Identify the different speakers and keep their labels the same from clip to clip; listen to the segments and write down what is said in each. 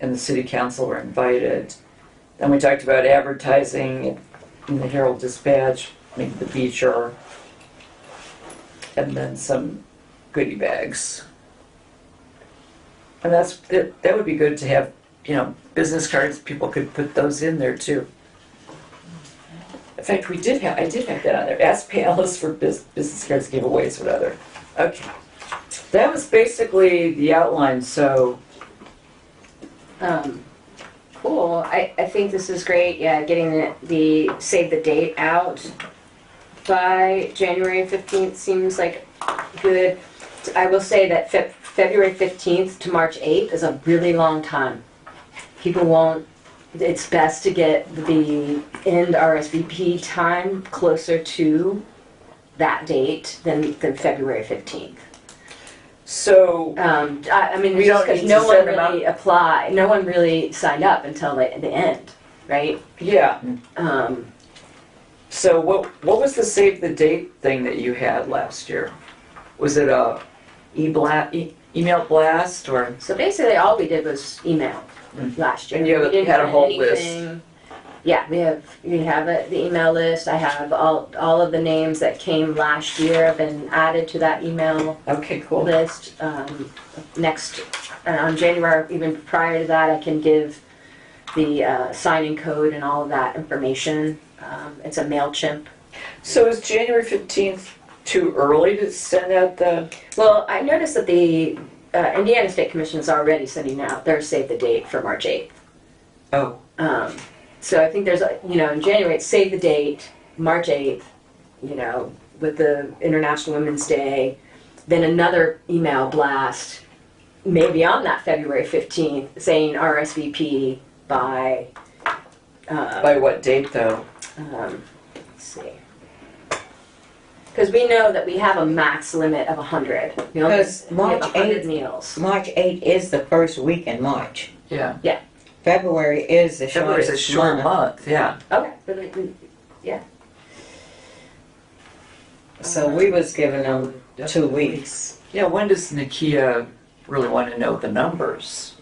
Speaker 1: and the city council were invited. Then we talked about advertising in the Herald Dispatch, maybe the feature, and then some goodie bags. And that's, that, that would be good to have, you know, business cards, people could put those in there too. In fact, we did have, I did have that on there, ask Palace for bus- business cards giveaways, whatever. Okay. That was basically the outline, so,
Speaker 2: Um, cool. I, I think this is great. Yeah, getting the, the save the date out by January 15th seems like good. I will say that Feb- February 15th to March 8th is a really long time. People won't. It's best to get the end RSVP time closer to that date than, than February 15th.
Speaker 1: so,
Speaker 2: Um, I, I mean,
Speaker 1: We
Speaker 2: it's
Speaker 1: don't
Speaker 2: just 'cause
Speaker 1: need to
Speaker 2: no one
Speaker 1: send them
Speaker 2: really applied, no one really signed up until the, the end, right?
Speaker 1: yeah.
Speaker 2: Um,
Speaker 1: So what, what was the save the date thing that you had last year? Was it a e-blast, e- email blast or?
Speaker 2: so basically, all we did was email last year.
Speaker 1: And you have-
Speaker 2: We didn't
Speaker 1: had a
Speaker 2: put
Speaker 1: whole list.
Speaker 2: anything- Yeah, we have we have a, the email list. I have all all of the names that came last year have been added to that email
Speaker 1: Okay, cool.
Speaker 2: list, um, next, uh, on January, even prior to that, I can give the, uh, signing code and all of that information. Um, it's a MailChimp.
Speaker 1: So is January fifteenth too early to send out the,
Speaker 2: Well, I noticed that the, uh, Indiana State Commission is already sending out their save the date for March eighth.
Speaker 1: oh,
Speaker 2: Um, so I think there's, a you know, in January, it's save the date, March 8th, you know, with the International Women's Day, then another email blast, maybe on that February 15th, saying RSVP by, uh,
Speaker 1: by what date though?
Speaker 2: um, let's see. Because we know that we have a max limit of 100. We only-
Speaker 3: Because
Speaker 2: we have
Speaker 3: March
Speaker 2: 100
Speaker 3: 8th
Speaker 2: meals.
Speaker 3: March 8 is the first week in March.
Speaker 1: Yeah.
Speaker 3: February is the
Speaker 1: February's
Speaker 3: shortest
Speaker 1: a short
Speaker 3: month.
Speaker 1: month, yeah.
Speaker 2: Okay. but we- we-
Speaker 3: So we was giving them two weeks.
Speaker 1: Yeah, when does Nakia really want to know the numbers?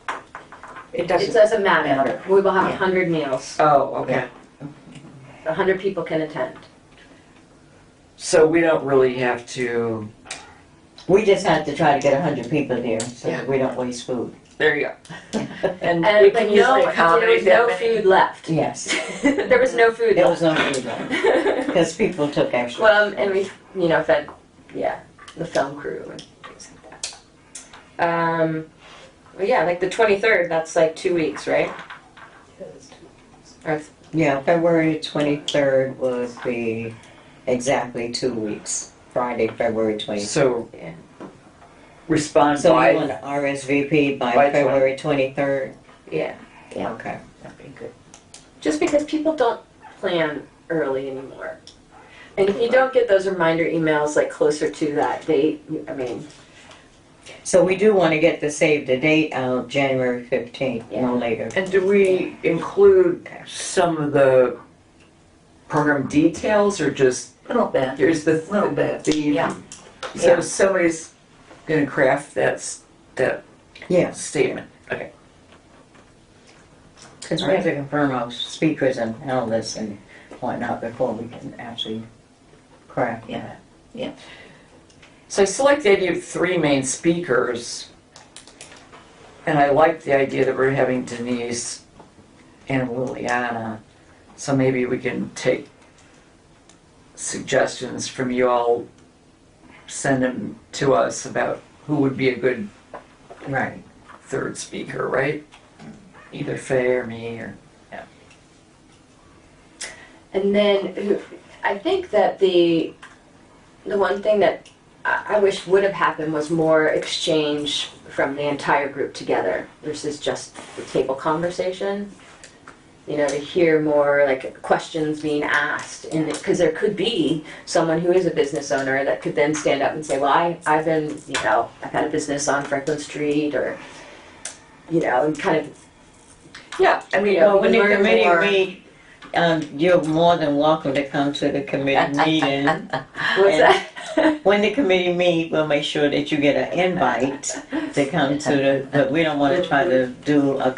Speaker 3: It
Speaker 2: It doesn't matter. We will have 100 meals.
Speaker 1: Oh, okay.
Speaker 2: 100 people can attend.
Speaker 1: So we don't really have to,
Speaker 3: We just have to try to get 100 people there so
Speaker 1: Yeah.
Speaker 3: that we don't waste food.
Speaker 1: there you go. And we can
Speaker 2: And but
Speaker 1: use
Speaker 2: no,
Speaker 1: the
Speaker 2: there
Speaker 1: accommodate
Speaker 2: was
Speaker 1: that
Speaker 2: no
Speaker 1: many.
Speaker 2: food left.
Speaker 3: Yes.
Speaker 2: there was no food
Speaker 3: There was
Speaker 2: left.
Speaker 3: no food left because people took extra.
Speaker 2: well, um, and we, you know, fed, yeah, the film crew and things like that. Um, well, yeah, like the 23rd, that's like two weeks, right? Or,
Speaker 3: yeah, February 23rd would be exactly two weeks. Friday, February 23rd.
Speaker 1: So
Speaker 2: Yeah.
Speaker 1: respond
Speaker 3: So you
Speaker 1: by,
Speaker 3: want to RSVP by,
Speaker 1: by
Speaker 3: February 23rd?
Speaker 2: yeah. Yeah.
Speaker 3: Okay.
Speaker 1: that'd be good.
Speaker 2: Just because people don't plan early anymore. And if you don't get those reminder emails like closer to that date, I mean,
Speaker 3: So we do want to get the save the date out January 15th,
Speaker 2: Yeah.
Speaker 3: no later.
Speaker 1: And do we include some of the program details or just,
Speaker 4: Little bit.
Speaker 1: here's the,
Speaker 4: Little bit,
Speaker 1: the,
Speaker 4: yeah.
Speaker 1: so
Speaker 2: Yeah.
Speaker 1: somebody's gonna craft that, s- that
Speaker 3: Yes.
Speaker 1: statement.
Speaker 3: Because we have to confirm our speakers and panelists and whatnot before we can actually craft
Speaker 4: Yeah.
Speaker 3: that.
Speaker 1: So I still like the idea of three main speakers. And I like the idea that we're having Denise and Liliana. So maybe we can take suggestions from you all, send them to us about who would be a good
Speaker 3: Right.
Speaker 1: third speaker, right? Either Faye or me or.
Speaker 2: And then who- I think that the the one thing that I I wish would have happened was more exchange from the entire group together versus just the table conversation. You know, to hear more like questions being asked, and because there could be someone who is a business owner that could then stand up and say, "Well, I, I've been, you know, I've had a business on Franklin Street," or you know, and kind of
Speaker 1: Yeah, I mean,
Speaker 2: Yeah,
Speaker 3: Well, when the
Speaker 2: learn
Speaker 3: committee
Speaker 2: more.
Speaker 3: meet, um, you're more than welcome to come to the committee meeting.
Speaker 2: what's that?
Speaker 3: When the committee meet, we'll make sure that you get an invite to come to the, but we don't want to try to do a